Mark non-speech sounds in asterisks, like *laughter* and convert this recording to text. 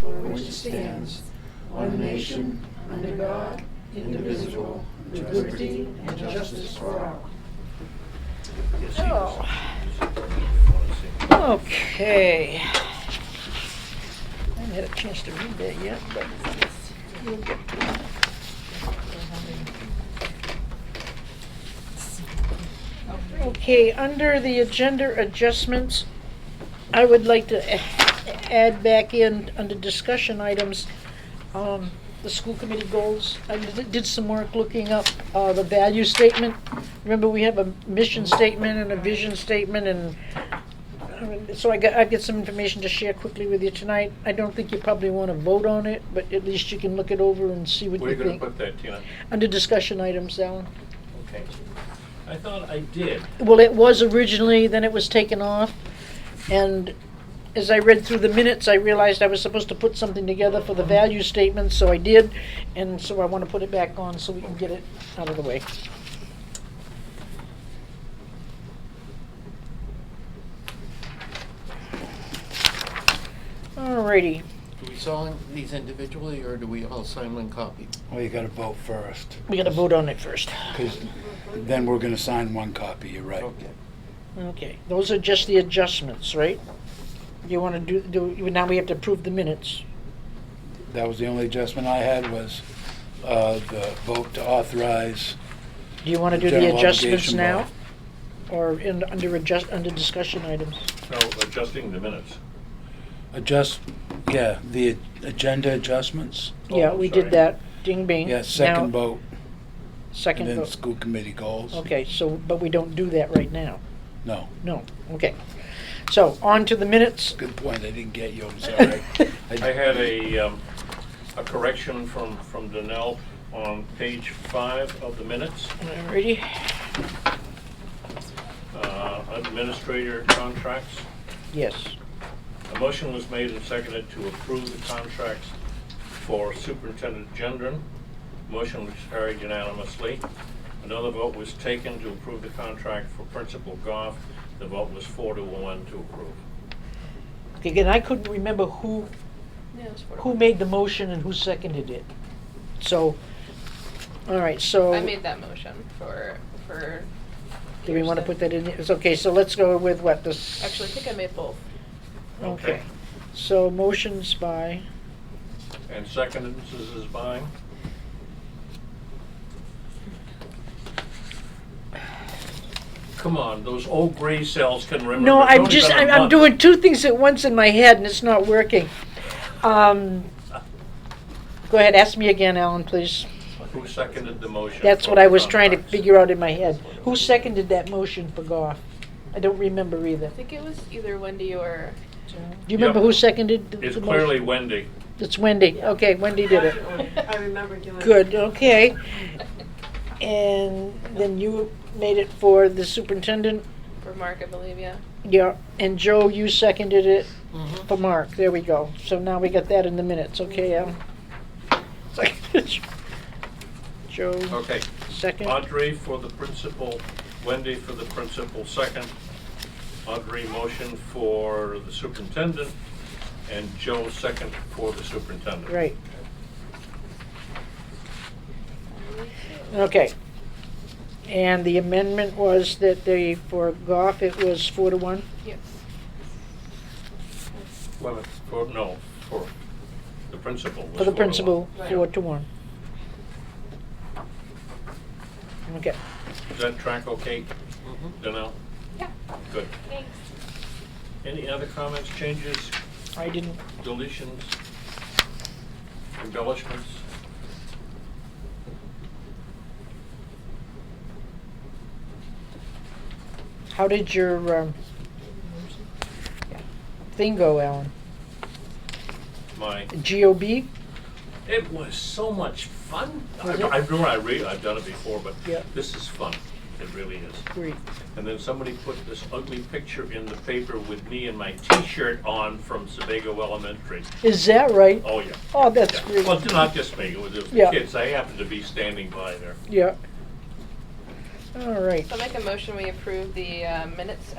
which it stands, one nation, under God, indivisible, with liberty and justice for all. Okay. I haven't had a chance to read that yet, but we'll get to it. Okay, under the agenda adjustments, I would like to a- add back in, under discussion items, um, the school committee goals. I did did some work looking up uh, the value statement. Remember, we have a mission statement and a vision statement and um, So I got, I get some information to share quickly with you tonight. I don't think you probably want to vote on it, but at least you can look it over and see what Where are you you gonna think. put that, Tina? Under discussion items, Alan. Okay. I thought I did. Well, it was originally, then it was taken off. And as I read through the minutes, I realized I was supposed to put something together for the value statement, so I did. And so I want to put it back on so we can get it out of the way. Alrighty. Do we sign these individually, or do we all sign one copy? Well, you gotta vote first, We gotta vote on it first. because then we're gonna sign one copy, you're right. Okay. Okay, those are just the adjustments, right? You wanna do, do, now we have to approve the minutes. That was the only adjustment I had was uh, the vote to authorize. Do you wanna do the General adjustments obligation now? Or in, under adjust, under discussion items? No, adjusting the minutes. Adjust, yeah, the agenda adjustments. Yeah, Oh, we sorry. did that, ding bing. Yeah, second Now- vote, and Hmm? Second then vote, school committee goals. okay, so, but we don't do that right now, No, no, okay. So, on to the minutes. good point, I didn't get *laughs* you, I'm sorry. I had a, um, a correction from, from Donnell on page five of the minutes. Alrighty, Uh, Administrator contracts. yes, A motion was made and seconded to approve the contracts for Superintendent Gendron. Motion was carried unanimously. Another vote was taken to approve the contract for Principal Goff. The vote was four to one to approve. Okay, again, I couldn't remember who who made the motion and who seconded it. So, all right, so. I made that motion for, for. Do we want to Peterson. put that in? It's okay, so let's go with what this. Actually, I think I made both. Okay, so motions by, And seconded, Mrs. is buying. Come on, those old gray cells can remember. no, It's I'm only just, been a I'm I'm month. doing two things at once in my head and it's not working. Um, Go ahead, ask me again, Alan, please. Who seconded the motion? That's for what I the was trying to contracts? figure out in my head. Who seconded that motion for Goff? I don't remember either. I think it was either Wendy or Do you remember Yep. who seconded the the It's motion? clearly Wendy. It's Wendy, okay, Wendy did it. *laughs* I remember doing. Good, okay. And then you made it for the superintendent, for Mark, I believe, yeah. yeah, and Joe, you seconded it for Mark, there we go. So now we got that in the minutes, okay, um. *laughs* Joe, Okay. second, Audrey for the principal, Wendy for the principal second. Audrey motion for the superintendent, and Joe second for the superintendent. right. Okay. And the amendment was that they, for Goff, it was four to one? Yes. Well, for, no, for the principal. For was the four to one. principal, Right. four to one. Okay, Is that track okay, Donnell? Yeah. Good. Thanks. Any other comments, changes, I didn't, deletions, embellishments? how did your, um, thing go, Alan? My, GOB? it was so much fun. I Was it? I know I read, I've done it before, but Yeah. this is fun. It really is. Great. And then somebody put this ugly picture in the paper with me and my T-shirt on from Sebago Elementary. Is that right? Oh, yeah. Oh, that's Yeah. Well, great, not just me, it was the Yeah. kids. They happened to be standing by there. yeah. All right. So I'll make a motion, we approve the uh, minutes